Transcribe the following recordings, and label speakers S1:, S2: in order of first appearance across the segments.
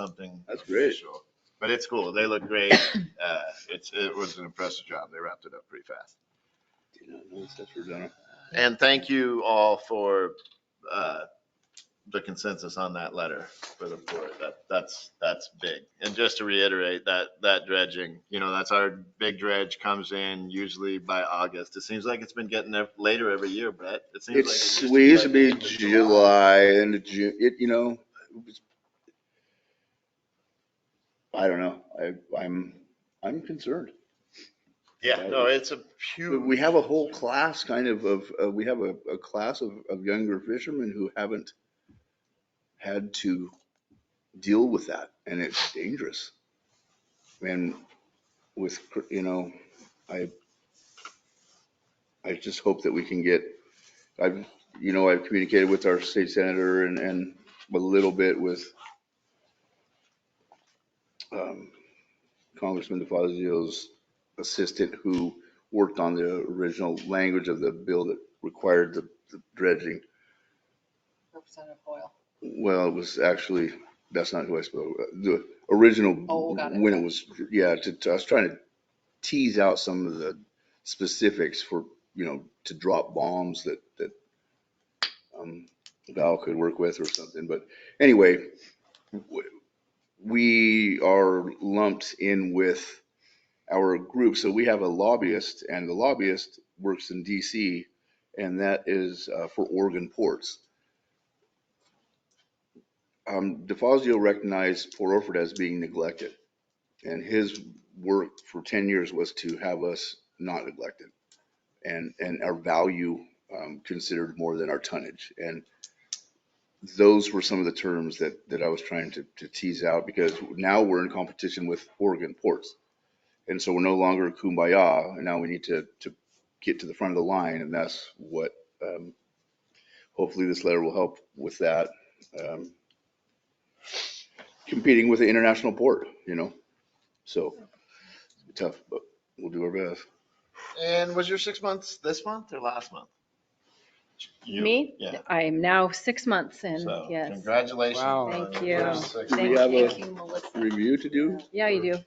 S1: something.
S2: That's great.
S1: official. But it's cool. They look great. Uh, it's, it was an impressive job. They wrapped it up pretty fast.
S2: Do not know if that's for dinner.
S1: And thank you all for uh, the consensus on that letter for the board. That, that's, that's big. And just to reiterate, that, that dredging, you know, that's our big dredge comes in usually by August. It seems like it's been getting there later every year, Brett. It seems like
S2: It's,
S1: just
S2: we used to
S1: like
S2: be
S1: end of
S2: July, end of June, it, you know. it was- I don't know, I, I'm, I'm concerned.
S1: Yeah, no, it's a
S2: But
S1: huge.
S2: We have a whole class kind of, of, uh, we have a, a class of, of younger fishermen who haven't had to deal with that and it's dangerous. And with, cr- you know, I, I just hope that we can get, I've, you know, I've communicated with our state senator and, and a little bit with um, Congressman DeFazio's assistant who worked on the original language of the bill that required the the dredging.
S3: Representative Hoyle.
S2: Well, it was actually, that's not who I spoke, the original,
S3: Oh, got it.
S2: when it was, yeah, to, I was trying to tease out some of the specifics for, you know, to drop bombs that, that um, Val could work with or something, but anyway, w- we are lumped in with our group, so we have a lobbyist, and the lobbyist works in DC, and that is uh, for Oregon ports um, DeFazio recognized Port Orford as being neglected. And his work for ten years was to have us not neglected and, and our value, um, considered more than our tonnage. And those were some of the terms that, that I was trying to, to tease out because now we're in competition with Oregon ports. And so we're no longer kumbaya and now we need to, to get to the front of the line and that's what, um, hopefully this letter will help with that. Um, competing with the international port, you know? So tough, but we'll do our best.
S1: And was your six months this month or last month? You-
S4: Me?
S1: Yeah.
S4: I'm now six months in,
S1: So
S4: yes.
S1: congratulations.
S5: Wow.
S1: on
S4: Thank
S1: the
S4: you.
S1: first six
S4: Thank
S1: months.
S2: have a-
S3: Thank you, Melissa.
S2: Review to do?
S4: Yeah, you do.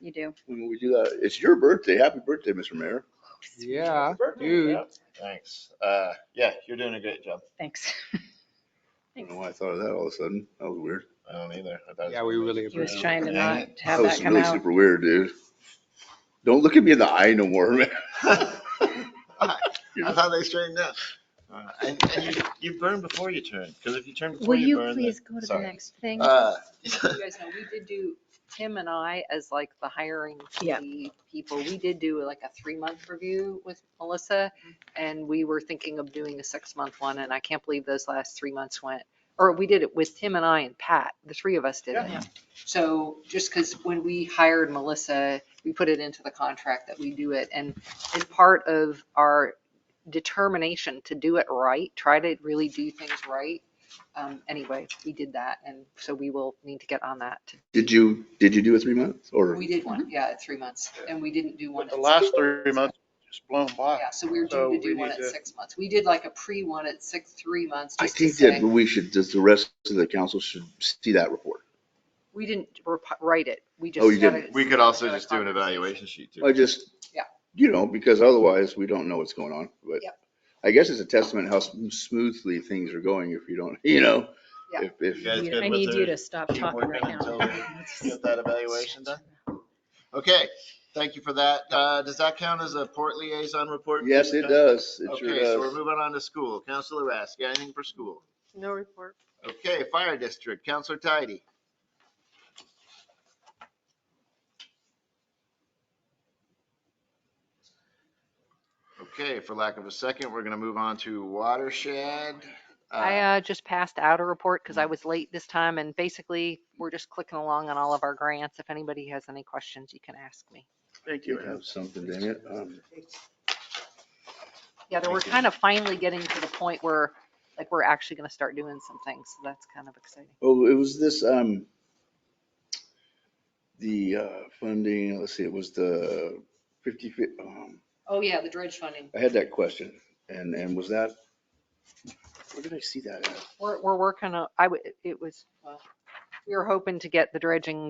S4: You do.
S2: When will we do that? It's your birthday. Happy birthday, Mr. Mayor.
S5: Yeah, dude.
S1: Yeah, Thanks. Uh, yeah, you're doing a great job.
S4: Thanks.
S2: I don't know why I thought of that all of a sudden. That was weird.
S1: I don't either. I thought it
S5: Yeah,
S1: was
S5: we
S1: gonna be-
S5: really
S4: He was
S5: appreciate it.
S4: trying to
S1: Dang
S4: not
S1: it.
S4: have
S2: That
S4: that
S2: was
S4: come
S2: really
S4: out.
S2: super weird, dude. Don't look at me in the eye no more, man.
S1: I thought they straightened up. Uh, And, and you, you burn before you turn, because if you turn before
S4: Will
S1: you
S4: you
S1: burn.
S4: please go to the
S1: sorry.
S4: next thing?
S1: Uh,
S3: You guys know, we did do, Tim and I, as like the hiring
S4: Yeah.
S3: key people, we did do like a three-month review with Melissa.
S4: Mm-hmm.
S3: And we were thinking of doing a six-month one, and I can't believe those last three months went, or we did it with Tim and I and Pat, the three of us did
S4: Yeah.
S3: it. So just because when we hired Melissa, we put it into the contract that we do it. And as part of our determination to do it right, try to really do things right. Um, anyway, we did that, and so we will need to get on that.
S2: Did you, did you do a three months or?
S3: We did one, yeah, at three months, and we didn't do one.
S6: But the
S3: at
S6: last
S3: six
S6: three months just blown by.
S3: Yeah, so we were
S6: so
S3: due to
S6: we
S3: do one
S6: need
S3: at
S6: to-
S3: six months. We did like a pre-one at six, three months,
S2: I
S3: just to
S2: think that
S3: say,
S2: we should, just the rest of the council should see that report.
S3: we didn't rep- write it, we just.
S2: Oh, you
S3: had
S2: didn't.
S3: a-
S1: We could also
S3: had a
S1: just do an
S3: conversation.
S1: evaluation sheet too.
S2: I just,
S3: Yeah.
S2: you know, because otherwise we don't know what's going on, but
S3: Yep.
S2: I guess it's a testament how sm- smoothly things are going if you don't, you know?
S3: Yeah.
S2: If, if.
S1: You guys good
S4: I
S1: with
S4: need
S1: the-
S4: you to stop
S1: keep
S4: talking right
S1: working until we
S4: now.
S1: Get
S2: Oh,
S1: that evaluation done. Okay, thank you for that. Uh, does that count as a port liaison report?
S2: Yes, it does. It sure
S1: Okay, so we're
S2: does.
S1: moving on to school. Counselor Rask, you got anything for school?
S7: No report.
S1: Okay, fire district, Counselor Tidy. Okay, for lack of a second, we're gonna move on to watershed.
S3: I
S1: Uh, Mm.
S3: uh, just passed out a report because I was late this time, and basically, we're just clicking along on all of our grants. If anybody has any questions, you can ask me.
S1: Thank
S2: You have something, dang it. Um,
S3: Yeah, they we're
S1: Thank you.
S3: kind of finally getting to the point where, like, we're actually going to start doing some things, so that's kind of exciting.
S2: Oh, it was this, um, the, uh, funding, let's see, it was the fifty, fi- um,
S3: Oh, yeah, the dredge funding.
S2: I had that question and, and was that, where did I see that at?
S3: We're, we're working on, I would, it was, well, we were hoping to get the dredging